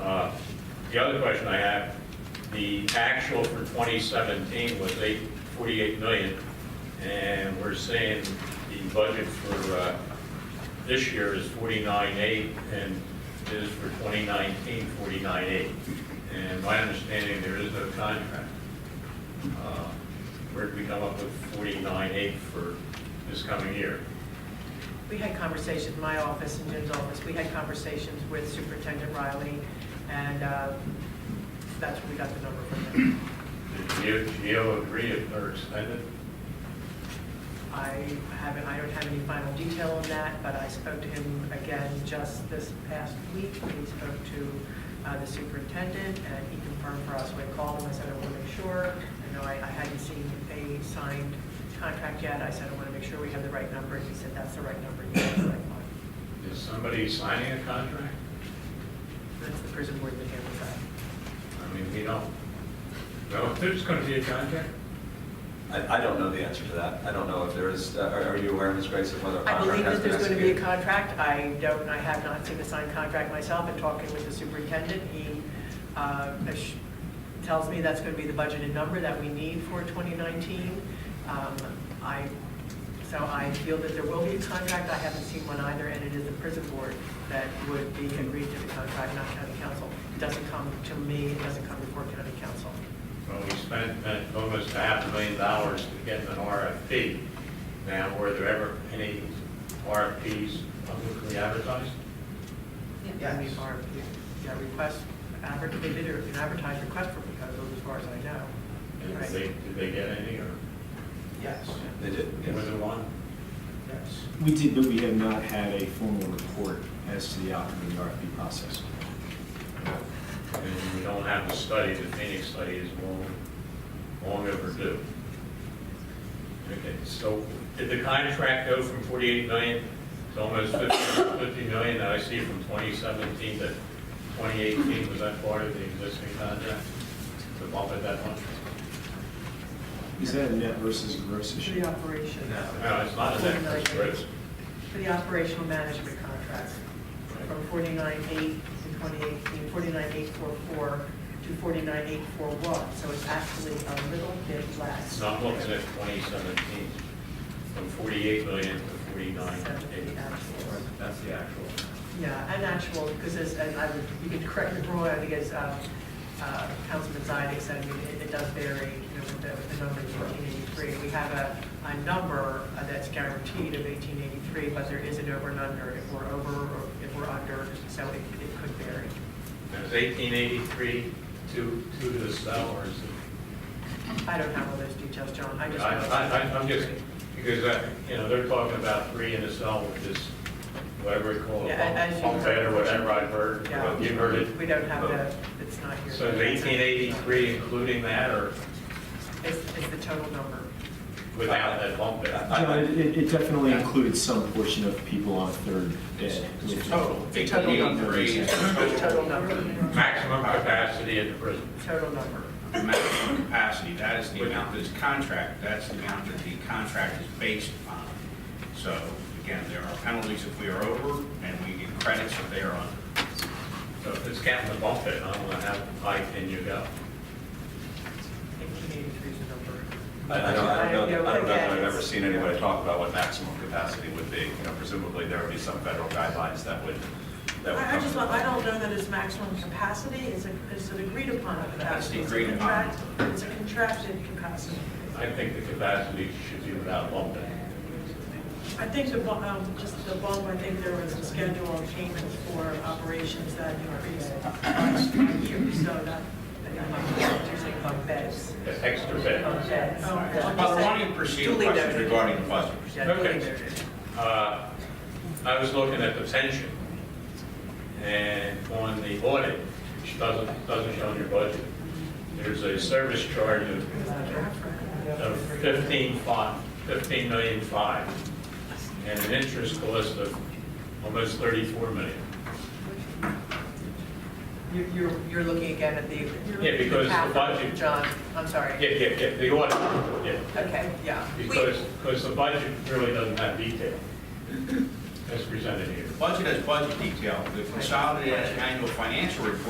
Uh, The other question I have, the actual for 2017 was 8, 48 million, and we're saying the budget for uh, this year is 49.8, and is for 2019, 49.8. And my understanding, there is no contract. Uh, Where did we come up with 49.8 for this coming year? We had conversations, my office and Jim's office, we had conversations with Superintendent Riley, and uh, that's where we got the number from them. Did Geo- Geo agree if they're extended? I haven't, I don't have any final detail on that, but I spoke to him again just this past week. He spoke to uh, the superintendent, and he confirmed for us, we called him, I said, I want to make sure. I know I I hadn't seen a signed contract yet, I said, I want to make sure we have the right number, he said, that's the right number, you have the right one. Is somebody signing a contract? That's the prison board that handles that. I mean, we don't. No, there's going to be a contract? I, I don't know the answer to that. I don't know if there is, uh, are are you aware, Ms. Grace, of whether a I contract believe has that been there's going to be a executed? contract. I don't, I have not seen a signed contract myself, and talking with the superintendent, he uh, ass- tells me that's going to be the budgeted number that we need for 2019. Um, I, so I feel that there will be a contract. I haven't seen one either, and it is the prison board that would be agreed to the contract, not county council. It doesn't come to me, it doesn't come before county council. Well, we spent uh, almost a half a million dollars to get an RFP. Now, were there ever any RFPs publicly advertised? Yeah, I mean, our, yeah, request, adver- they did an advertised request for proposals, as far as I know. And did Right. they, did they get any, or Yes. They did, was yes. there one? Yes. We did, but we have not had a formal report as to the outcome of the RFP process. And we don't have the study, the Phoenix study is long, long overdue. Okay, so did the contract go from 48 million to almost 50 50 million that I see from 2017 to 2018? Was that part of the existing contract, the bump at that one? Is that a net versus gross For issue? the operation. No, it's not an excess gross. For the operational management contracts, from 49.8 in 2018, 49.844 to 49.841. So it's actually a little bit less. It's not looking at 2017, from 48 million to 49. Except for the actual. That's the actual. Yeah, and actual, because as, and I would, you can correct me if I'm wrong, I think as uh, uh, Councilman Zidek said, I mean, it it does vary, you know, with the, with the number of 1883. We have a, a number uh, that's guaranteed of 1883, but there is an over and under, if we're over or if we're under, so it, it could vary. Is 1883 two, two to the cell, or is it? I don't have all those details, John, I I, just. I, I- I'm just, because, I- you know, they're talking about three in a cell, which is whatever you call it, Yeah, as you bunk- bunk bed or whatever I've heard, Yeah. you heard it. We don't have the, it's not here. So is 1883 including that or It's, it's the total number. without that bump bed? No, it, it it definitely included some portion of people on third day. It's a total number. 1883 is It's the Total number, total Maximum capacity at the prison. total number. the maximum capacity, that is the amount that's contract, that's the amount that the contract is based upon. So, again, there are penalties if we are over, and we get credits if they are under. So if it's counting the bump bed, I'm gonna have high pin you go. 1883 is the number. I I don't, I don't know, I don't know that I've Again, ever it's- seen anybody talk about what maximum capacity would be. You know, presumably there would be some federal guidelines that would, that would come. I I just, don't- I don't know that it's maximum capacity, is it, is it agreed upon capacity? That's the It's a agreed upon. contract- It's a contracted capacity. I think the capacity should be without bump bed. I think the, bu- um, just the bump, I think there was a schedule on payments for operations that increased last year, so that, that usually bump beds. The extra bed. beds. But why don't you proceed with questions regarding the budget? Okay. Uh, I was looking at the pension and on the audit, which doesn't, doesn't show in your budget, there's a service charge of of 15 fi- 15 million five and an interest cost of almost 34 million. You're, you're looking again at the. Yeah, because the capital, budget- John, I'm sorry. Yeah, yeah, yeah, the audit, yeah. Okay, yeah. Because, because the budget really doesn't have detail as presented here. Budget has budget detail, the consolidated annual financial report